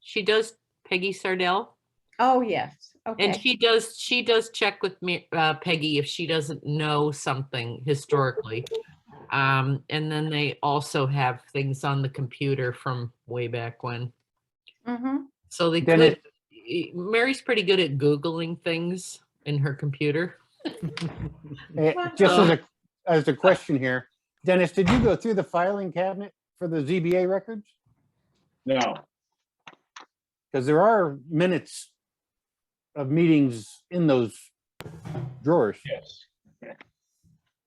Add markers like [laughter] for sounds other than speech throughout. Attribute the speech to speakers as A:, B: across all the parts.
A: She does Peggy Sardell.
B: Oh, yes,
A: And
B: okay.
A: she does, she does check with me, uh, Peggy, if she doesn't know something historically. Um, and then they also have things on the computer from way back when.
B: Mhm.
A: So they
C: Then
A: could, e- Mary's pretty good at Googling things in her computer.
C: Eh, Just as a, as a question here, Dennis, did you go through the filing cabinet for the ZBA records?
D: No,
C: Because there are minutes of meetings in those drawers.
D: yes.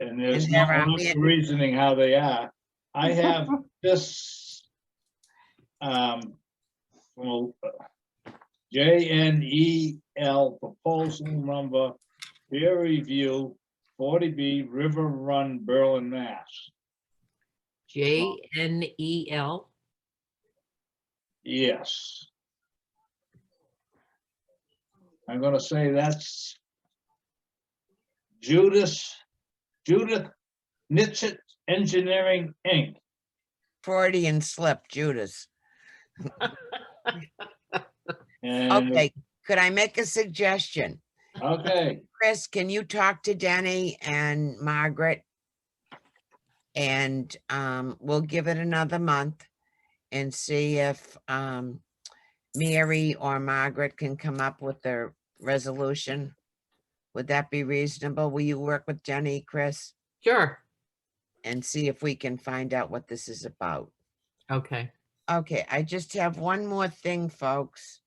D: And there's
E: Is
D: no
E: there a
D: much
E: bid?
D: reasoning how they are.
B: [laughs]
D: I have this. um, well, J N E L proposal number, peer review, forty B River Run Berlin, Mass.
A: J N E L.
D: Yes. I'm gonna say that's Judas, Judith Nitzit Engineering, Inc.
E: Freudian slip, Judas.
D: And-
E: Okay, could I make a suggestion?
D: Okay,
E: Chris, can you talk to Denny and Margaret? And um, we'll give it another month and see if um, Mary or Margaret can come up with their resolution. Would that be reasonable? Will you work with Jenny, Chris,
A: Sure.
E: and see if we can find out what this is about?
A: Okay.
E: Okay, I just have one more thing, folks,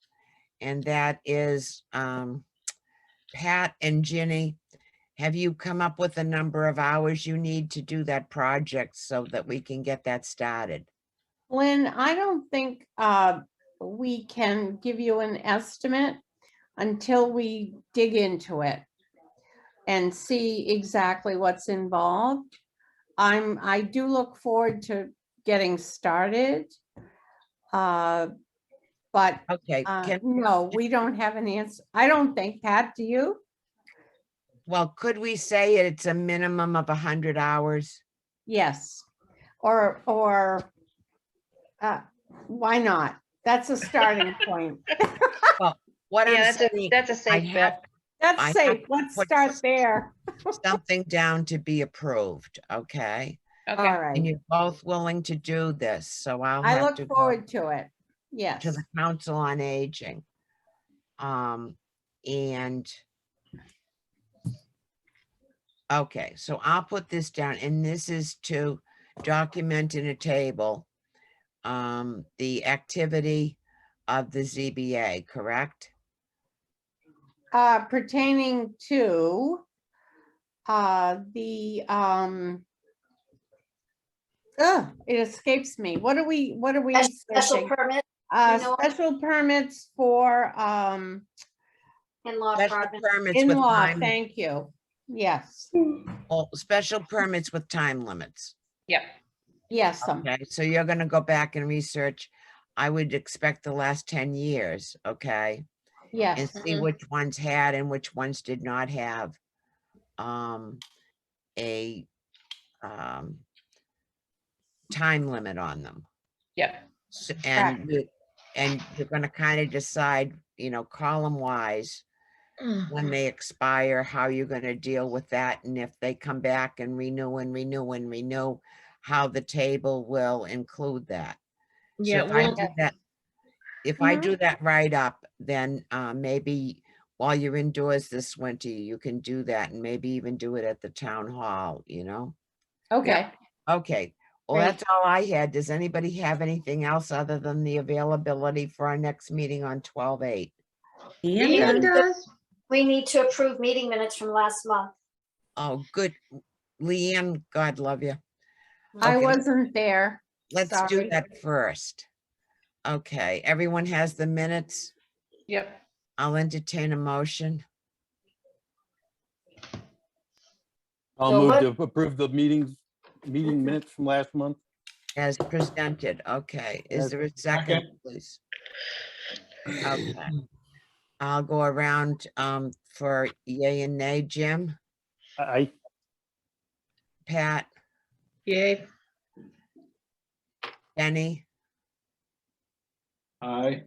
E: and that is, um, Pat and Ginny, have you come up with a number of hours you need to do that project so that we can get that started?
B: Lynn, I don't think uh, we can give you an estimate until we dig into it and see exactly what's involved. I'm, I do look forward to getting started. uh, But
E: Okay,
B: uh,
E: can,
B: no, we don't have an answer. I don't think, Pat, do you?
E: well, could we say it's a minimum of a hundred hours?
B: Yes, or, or, uh, why not? That's a starting point.
E: What
F: Yeah,
E: I'm
F: that's a,
E: saying,
F: that's a
E: I
F: safe
E: have
F: bet.
E: I
B: That's safe.
E: have
B: Let's
E: put-
B: start there.
E: something down to be approved, okay?
B: All
F: Okay,
E: And
B: right.
E: you're both willing to do this, so I'll
B: I
E: have to
B: look
E: go.
B: forward to it. Yes.
E: to the Council on Aging. Um, and okay, so I'll put this down, and this is to document in a table um, the activity of the ZBA, correct?
B: Uh, pertaining to uh, the, um, ugh, it escapes me. What are we, what are we?
G: Special
B: searching?
G: permit
B: Uh,
G: you know-
B: special permits for, um,
G: in-law
E: Special
G: apartment.
E: permits with
B: in-law,
E: time,
B: thank you. Yes,
E: oh, special permits with time limits.
F: yep.
B: yes, um,
E: Okay, so you're gonna go back and research, I would expect the last ten years, okay? and
B: yes.
E: see
F: Mhm.
E: which ones had and which ones did not have um, a um, time limit on them.
F: Yep.
E: S- And, you- and you're gonna kind of decide, you know, column wise,
F: Mm-hmm.
E: when they expire, how you're gonna deal with that, and if they come back and renew and renew and renew, how the table will include that. So
F: Yeah,
E: if I
F: we'll- Mm-hmm.
E: do that- If I
B: Mhm.
E: do that write-up, then uh, maybe while you're indoors this winter, you can do that and maybe even do it at the town hall, you know?
B: Okay,
E: Okay, well,
B: Great.
E: that's all I had. Does anybody have anything else other than the availability for our next meeting on twelve eight?
F: Ian does.
G: We need to approve meeting minutes from last month.
E: Oh, good. Leanne, God love you.
B: I
E: Okay.
B: wasn't there.
E: Let's do
B: Sorry.
E: that first. Okay, everyone has the minutes.
F: Yep.
E: I'll entertain a motion.
C: I'll
G: So
C: move
G: what-
C: to approve the meetings, meeting minutes from last month.
E: As presented, okay. Is
C: As-
E: there a second, please? Okay. I'll go around um for yay and nay. Jim,
C: I,
E: Pat,
F: Yay.
E: Denny,
D: I,